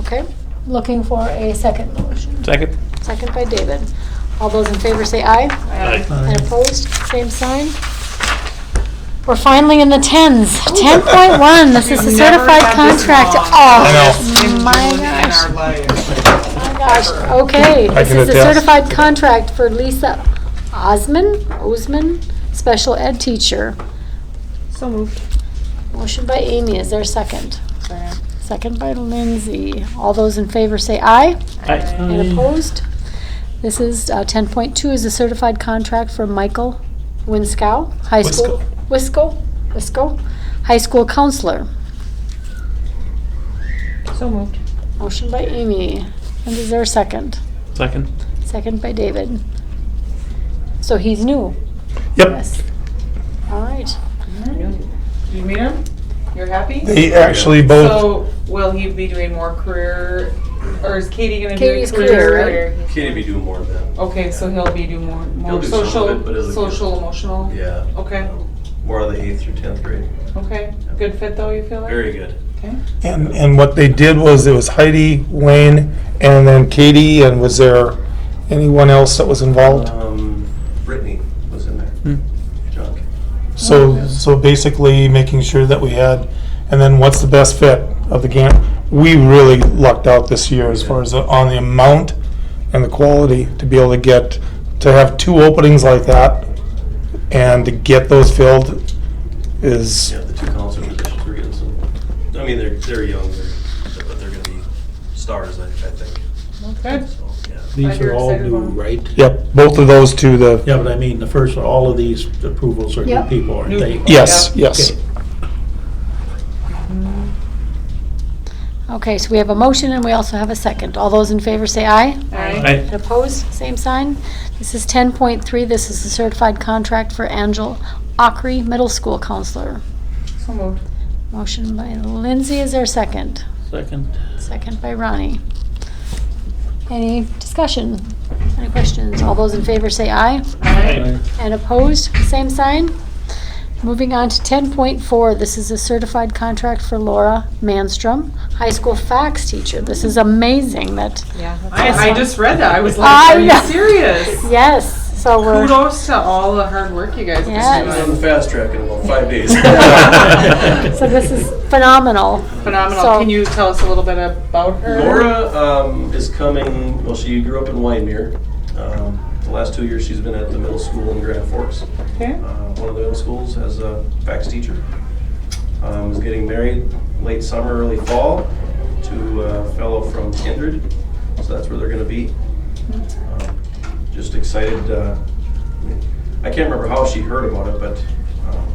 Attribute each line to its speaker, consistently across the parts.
Speaker 1: Okay, looking for a second motion.
Speaker 2: Second?
Speaker 1: Second by David. All those in favor say aye.
Speaker 2: Aye.
Speaker 3: Aye.
Speaker 1: And opposed, same sign. We're finally in the tens. Ten point one, this is a
Speaker 4: We've never
Speaker 1: certified
Speaker 4: had this
Speaker 1: contract.
Speaker 4: long.
Speaker 1: Oh,
Speaker 4: Been
Speaker 1: my
Speaker 4: doing it in
Speaker 1: gosh.
Speaker 4: our lives.
Speaker 1: My gosh, okay.
Speaker 2: I
Speaker 1: This
Speaker 2: can
Speaker 1: is a
Speaker 2: attest.
Speaker 1: certified contract for Lisa Osman, Osman, special ed teacher.
Speaker 5: So moved.
Speaker 1: Motion by Amy, is there a second? Second by Lindsay. All those in favor say aye.
Speaker 2: Aye.
Speaker 1: And opposed? This is, uh, ten point two is a certified contract for Michael Winskow, high school. Wisco, Wisco, high school counselor.
Speaker 5: So moved.
Speaker 1: Motion by Amy, and is there a second?
Speaker 2: Second?
Speaker 1: Second by David. So he's new,
Speaker 2: Yep.
Speaker 1: yes. All right.
Speaker 4: You meet him? You're happy?
Speaker 6: They actually both,
Speaker 4: So will he be doing more career, or is Katie gonna do
Speaker 1: Katie's
Speaker 4: career?
Speaker 7: Can't be doing more of that.
Speaker 4: Okay, so he'll be doing more, more
Speaker 7: He'll do some of it, but
Speaker 4: social,
Speaker 7: as a-
Speaker 4: social, emotional?
Speaker 7: Yeah,
Speaker 4: Okay,
Speaker 7: more of the eighth through tenth grade.
Speaker 4: okay. Good fit though, you feel like?
Speaker 7: Very good.
Speaker 6: and, and what they did was, it was Heidi, Wayne, and then Katie, and was there anyone else that was involved?
Speaker 7: Um, Brittany was in there. Junk.
Speaker 6: So, so basically making sure that we had, and then what's the best fit of the game? We really lucked out this year as far as on the amount and the quality to be able to get, to have two openings like that and to get those filled is,
Speaker 7: Yeah, the two counselor positions were getting some, I mean, they're, they're young, they're, but they're gonna be stars, I, I think.
Speaker 4: Good.
Speaker 7: So, yeah.
Speaker 3: These
Speaker 4: you're
Speaker 3: are all
Speaker 4: excited
Speaker 3: new,
Speaker 4: about it.
Speaker 3: right?
Speaker 6: yep, both of those two, the,
Speaker 3: Yeah, but I mean, the first, all of these approvals are new
Speaker 1: Yep.
Speaker 3: people, aren't
Speaker 4: New
Speaker 3: they?
Speaker 4: people.
Speaker 6: yes, yes.
Speaker 3: Okay.
Speaker 1: Okay, so we have a motion and we also have a second. All those in favor say aye.
Speaker 4: Alright,
Speaker 2: Aye.
Speaker 1: And opposed, same sign. This is 10.3, this is a certified contract for Angel Ockery, middle school counselor.
Speaker 4: so moved.
Speaker 1: Motion by Lindsay, is there a second?
Speaker 2: Second?
Speaker 1: Second by Ronnie. Any discussion? Any questions? All those in favor say aye.
Speaker 4: Alright,
Speaker 1: And opposed, same sign. Moving on to 10.4, this is a certified contract for Laura Manstrom, high school fax teacher. This is amazing that,
Speaker 4: yeah. I, I just read that, I was like,
Speaker 1: I
Speaker 4: are you
Speaker 1: know.
Speaker 4: serious?
Speaker 1: yes, so we're.
Speaker 4: Kudos to all the hard work you guys
Speaker 1: Yes.
Speaker 4: have
Speaker 7: I was
Speaker 4: been
Speaker 7: on the
Speaker 4: doing.
Speaker 7: fast track in about five days.
Speaker 1: So this is phenomenal. So-
Speaker 4: Phenomenal. Can you tell us a little bit about her?
Speaker 7: Laura um, is coming, well, she grew up in Waimea. Um, the last two years, she's been at the middle school in Grand Forks.
Speaker 4: Okay.
Speaker 7: uh, one of the middle schools as a fax teacher. Um, was getting married late summer, early fall to a fellow from Kindred, so that's where they're gonna be. Um, Just excited, uh, I can't remember how she heard about it, but, um,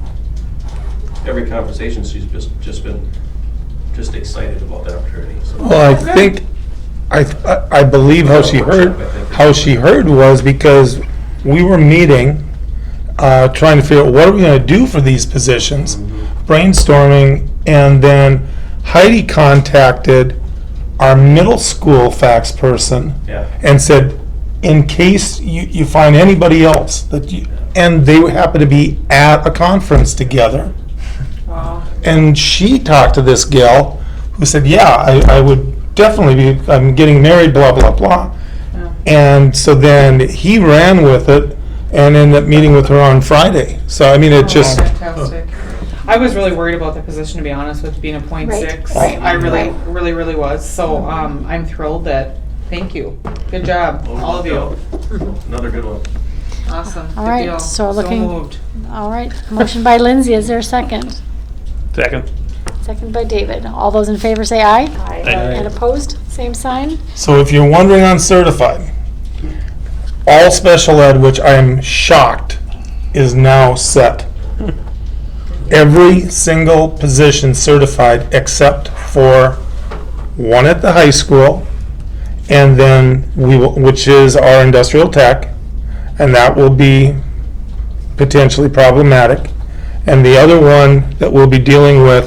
Speaker 7: every conversation, she's just, just been, just excited about the opportunity, so.
Speaker 6: Well, I think, I, th- I- I believe how she heard, how she heard was because we were meeting, uh, trying to figure out what are we gonna do for these positions, brainstorming, and then Heidi contacted our middle school fax person
Speaker 7: Yeah.
Speaker 6: and said, in case you, you find anybody else that you, and they happened to be at a conference together.
Speaker 4: Wow.
Speaker 6: And she talked to this gal who said, Yeah, I, I would definitely be, I'm getting married, blah, blah, blah.
Speaker 4: Yeah.
Speaker 6: And so then he ran with it and ended up meeting with her on Friday. So, I
Speaker 4: Oh,
Speaker 6: mean, it just,
Speaker 4: Fantastic. I was really worried about the position, to be honest with, being a point
Speaker 1: Right.
Speaker 4: six.
Speaker 6: Right.
Speaker 4: I really,
Speaker 1: Right.
Speaker 4: really, really was, so, um, I'm thrilled that, thank you. Good job, all of you.
Speaker 7: Another good one.
Speaker 4: Awesome. Good
Speaker 1: All right,
Speaker 4: deal.
Speaker 1: so looking-
Speaker 4: moved.
Speaker 1: All right, motion by Lindsay, is there a second?
Speaker 2: Second?
Speaker 1: Second by David. All those in favor say aye.
Speaker 2: Aye.
Speaker 1: And opposed, same sign.
Speaker 6: so if you're wondering on certified, all special ed, which I am shocked, is now set. Every single position certified except for one at the high school, and then we will, which is our industrial tech, and that will be potentially problematic. And the other one that we'll be dealing with,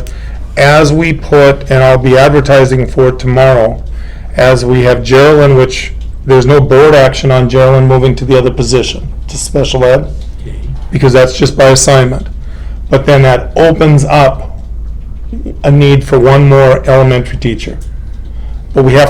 Speaker 6: as we put, and I'll be advertising for it tomorrow, as we have Geraldine, which there's no board action on Geraldine moving to the other position, to special ed, because that's just by assignment. But then that opens up a need for one more elementary teacher. But we have